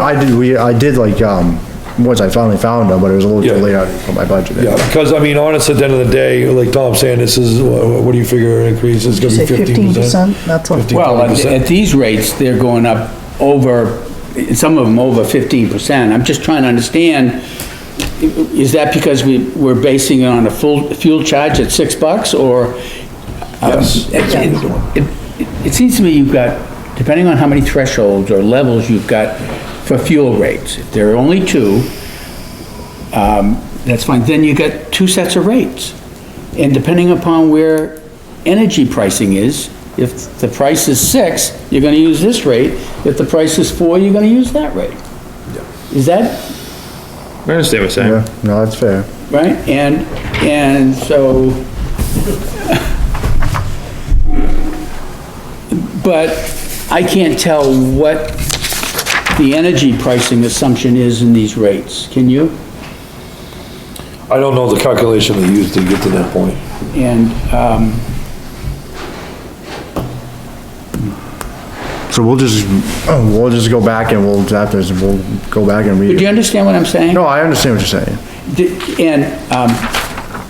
I did, we, I did like, um, once I finally found them, but it was a little too Yeah. late, I didn't put my budget in. Yeah, because I mean, honestly, at the end of the day, like Tom's saying, this is, what what do you figure an increase is gonna Say be fifteen percent? 15%, that's what. Well, at- 20%. at these rates, they're going up over, some of them over fifteen percent. I'm just trying to understand, is that because we, we're basing it on a full fuel charge at six bucks, or? um, Yes. It- It it seems to me you've got, depending on how many thresholds or levels you've got for fuel rates, if there are only two, that's fine, then you get two sets of rates. And depending upon where energy pricing is, if the price is six, you're gonna use this rate, if the price is four, you're gonna use that rate. Is that, I understand what you're Yeah, saying. no, that's fair. right? And, and so. But I can't tell what the energy pricing assumption is in these rates, can you? I don't know the calculation they used to get to that point. And, um, So we'll just, Oh, we'll just go back and we'll, after this, we'll go back and do you read. understand what I'm saying? No, I understand what you're saying. D- And, um,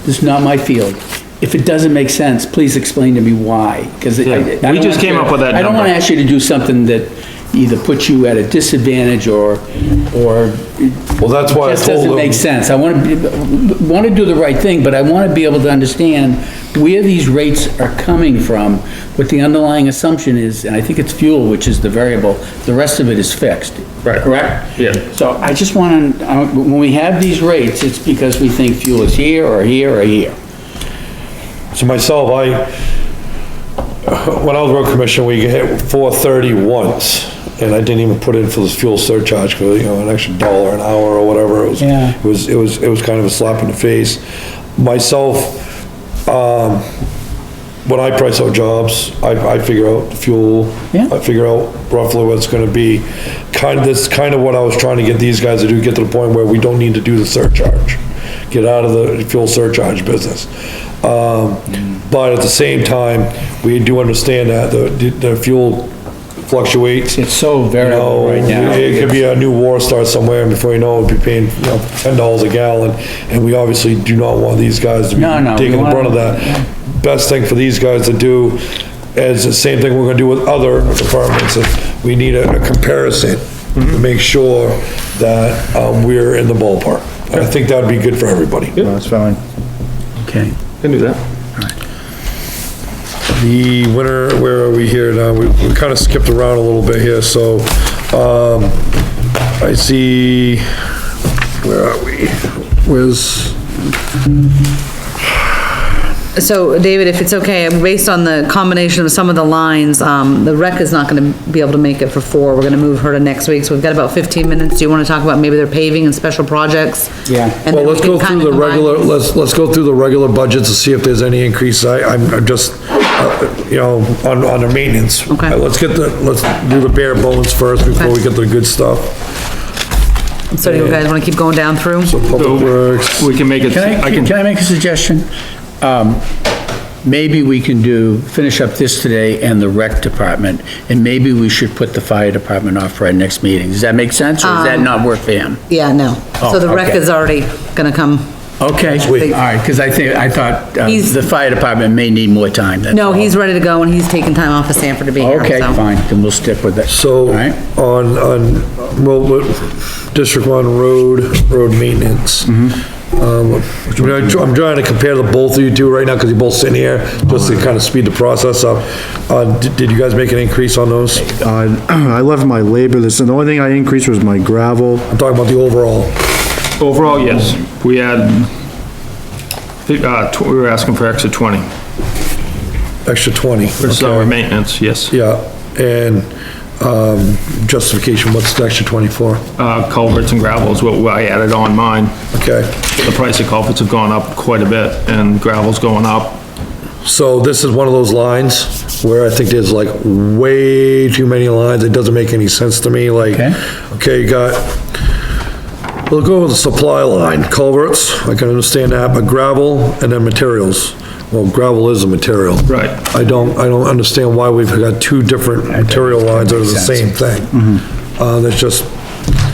this is not my field. If it doesn't make sense, please explain to me why, because I. I we don't just want came you- up with that I don't number. wanna ask you to do something that either puts you at a disadvantage or, or Well, that's why I just doesn't told make them, sense. I wanna, be- wanna do the right thing, but I wanna be able to understand where these rates are coming from, what the underlying assumption is, and I think it's fuel, which is the variable. The rest of it is fixed. Right. Correct? Yeah. So I just wanna, I- when we have these rates, it's because we think fuel is here or here or here. so myself, I, when I was road commissioner, we hit four thirty once, and I didn't even put in for this fuel surcharge, for, you know, an extra dollar an hour or whatever, it was, Yeah. it was, it was, it was kind of a slap in the face. Myself, when I price out jobs, I, I figure out the fuel. Yeah. I figure out roughly what it's gonna be. Kind, that's kind of what I was trying to get these guys to do, get to the point where we don't need to do the surcharge. Get out of the fuel surcharge business. Um, but at the same time, we do understand that the, the fuel fluctuates. It's so variable No, right now. It could be a new war starts somewhere, and before you know it, we'll be paying, you know, ten dollars a gallon, and we obviously do not want these guys to be No, no, we taking the brunt of wanna- that. Best thing for these guys to do is the same thing we're gonna do with other departments, is we need a a comparison to Mm-hmm. make sure that, um, we're in the ballpark. I think that'd be good for everybody. No, That's fine. Okay. Can do that. The winter, where are we here now? We, we kinda skipped around a little bit here, so, um, I see, where are we? Where's? So, David, if it's okay, based on the combination of some of the lines, um, the rec is not gonna be able to make it for four, we're gonna move her to next week, so we've got about fifteen minutes, do you wanna talk about maybe their paving and special projects? Yeah. Well, And then we let's can go kinda through the combine- regular, let's, let's go through the regular budgets to see if there's any increase. I, I'm I'm just, uh, you know, on, on the maintenance. Uh, Okay. Let's get the, let's do the bare bones first before we Okay. get the good stuff. So do you guys wanna keep going down through? So Public Works, We can make it, Can I I, can, can I make a suggestion? Um, Maybe we can do, finish up this today and the rec department, and maybe we should put the fire department off for our next meeting. Does that make sense, or does Um, that not work for him? Yeah, no, Oh, so the rec okay. is already gonna come, Okay, all week. right, because I think, I thought uh, He's- the fire department may need more time, that's no, all. Oh. he's ready to go and he's taking time off of Sanford to be here, Okay, so. fine, then we'll stick with that. so All right. on, on, well, what- District One Road, road maintenance. Um, you know, I'm trying to compare the both of you two right now, because you're both sitting here, just to kind of speed the process up. Uh, did did you guys make an increase on those? Uh, I left my labor, this, and the only thing I increased was my gravel. I'm talking about the overall. overall, yes, we had, uh, tw- we were asking for extra twenty, extra 20. for summer maintenance, yes. Yeah, and um, justification, what's the extra 24? Uh, culverts and gravel is what I added on mine. Okay, The price of culverts have gone up quite a bit, and gravel's going up. so this is one of those lines where I think there's like way too many lines, it doesn't make any sense to me, like, Okay. okay, you got, we'll go with the supply line, culverts, I can understand that, but gravel and then materials. Well, gravel is a material. Right. I don't, I don't understand why we've got two different material lines that are the sense. Mm-hmm. same thing. Uh, that's just